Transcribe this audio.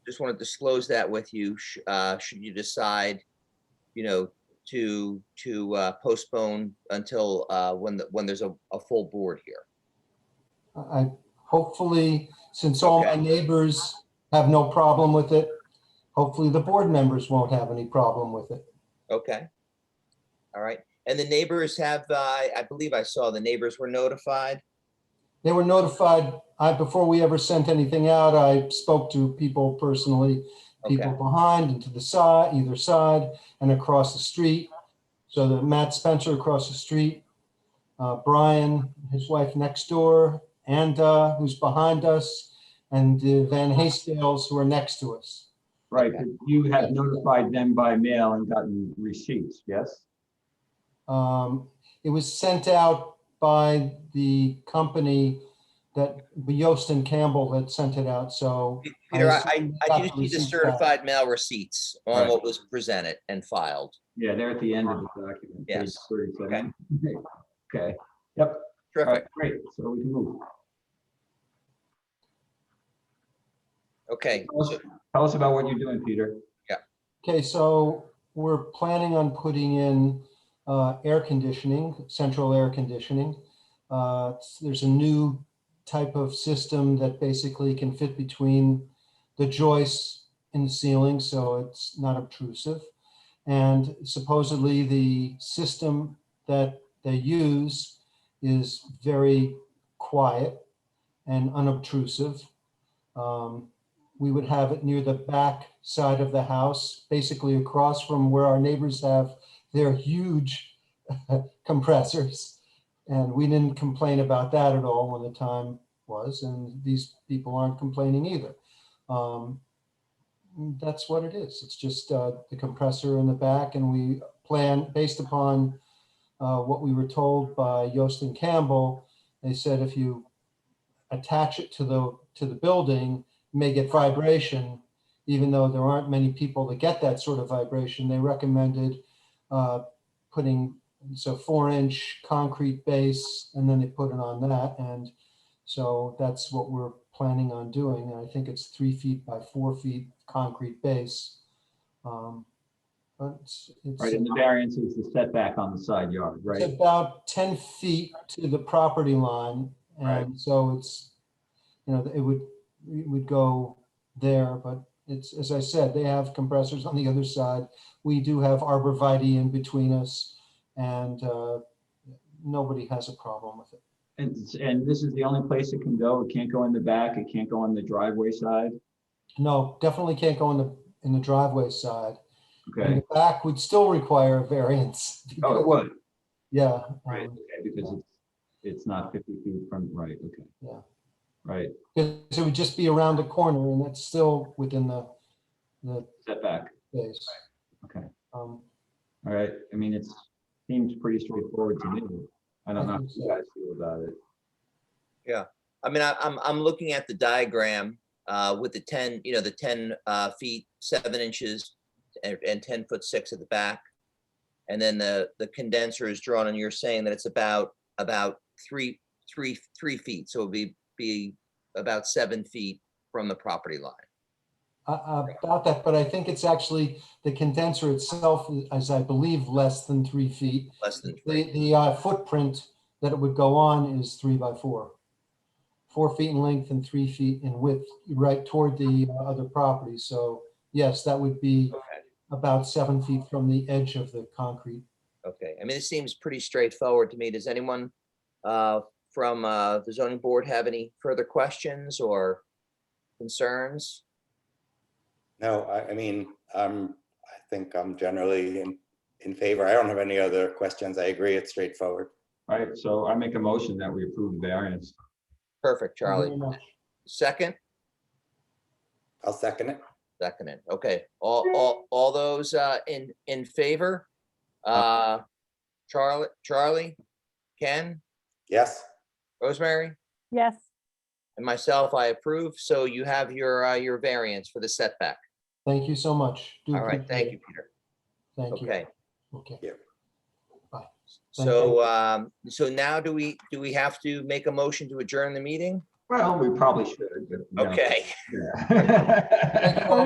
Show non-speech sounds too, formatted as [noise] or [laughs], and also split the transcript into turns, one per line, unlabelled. just want to disclose that with you, sh- uh, should you decide, you know, to, to uh, postpone until, uh, when, the- when there's a, a full board here.
I, hopefully, since all my
Okay.
neighbors have no problem with it, hopefully the board members won't have any problem with it.
Okay. All right. And the neighbors have, uh, I I believe I saw the neighbors were notified.
They were notified, I, before we ever sent anything out, I spoke to people personally, people
Okay,
behind and to the side, either side, and across the street. So that Matt Spencer across the street, uh, Brian, his wife next door, and, uh, who's behind us, and the Van Hastings who are next to us.
Right,
Okay.
but you had notified them by mail and gotten receipts, yes?
Um, It was sent out by the company that Yost and Campbell had sent it out, so.
Peter, I, I-
assume
I do see the
documents
certified mail receipts on
Right.
what was presented and filed.
Yeah, they're at the end of the document. page
Yes.
37. Okay, yep, all
Terrific.
right, great, so we can move.
Okay.
Tell us- Tell us about what you're doing, Peter.
Okay, so we're planning on putting in uh, air conditioning, central air conditioning. Uh, There's a new type of system that basically can fit between the joists in the ceiling, so it's not obtrusive. And supposedly the system that they use is very quiet and unobtrusive. Um, we would have it near the back side of the house, basically across from where our neighbors have their huge [laughs] compressors. And we didn't complain about that at all when the time was, and these people aren't complaining either. Um, That's what it is. It's just uh, the compressor in the back, and we plan, based upon uh, what we were told by Yost and Campbell, they said if you attach it to the, to the building, may get vibration, even though there aren't many people that get that sort of vibration. They recommended uh, putting, so four inch concrete base, and then they put it on that. And so that's what we're planning on doing. And I think it's three feet by four feet concrete base. Um, But it's,
Right, and the
it's
variance is the setback on the side yard,
it's
right?
about 10 feet to the property line.
Right.
And so it's, you know, it would, it would go there, but it's, as I said, they have compressors on the other side. We do have arborvitae in between us and uh, nobody has a problem with it.
And, and this is the only place it can go, it can't go in the back, it can't go on the driveway side,
No, definitely can't go in the, in the driveway side. In
okay?
the back would still require a variance.
Oh, it would,
Yeah.
right,
um,
okay, because it's, it's not 50 feet from, right, okay.
Yeah.
Right,
Because it would just be around the corner and that's still within the, the
setback,
space.
okay.
Um,
All right, I mean, it's, seems pretty straightforward to me. I don't know how you guys feel about it.
I mean, I, I'm, I'm looking at the diagram, uh, with the ten, you know, the ten, uh, feet, seven inches and, and ten foot six at the back. And then the, the condenser is drawn and you're saying that it's about, about three, three, three feet. So it'll be, be about seven feet from the property line.
uh, uh, About that, but I think it's actually, the condenser itself is, I believe, less than three feet.
Less than
The,
three.
the uh, footprint that it would go on is three by four. Four feet in length and three feet in width, right toward the uh, other property. So yes, that would be
Okay.
about seven feet from the edge of the concrete.
Okay, I mean, it seems pretty straightforward to me. Does anyone uh, from uh, the zoning board have any further questions or concerns?
No, I, I mean, um, I think I'm generally in, in favor. I don't have any other questions. I agree, it's straightforward.
All right, so I make a motion that we approve the variance.
Perfect,
Thank you
Charlie.
very much.
Second,
I'll second it.
second it. Okay, all, all, all those uh, in, in favor? Uh, Charlie, Charlie, Ken,
Yes,
Rosemary,
Yes,
and myself, I approve. So you have your, uh, your variance for the setback.
Thank you so much. Do
All right,
appreciate
thank
it.
you, Peter.
Thank you.
Okay.
Okay. Thank
So,
you.
um, so now do we, do we have to make a motion to adjourn the meeting?
Well, we probably should. but, you know,
Okay.
yeah. [laughs]
Thank you all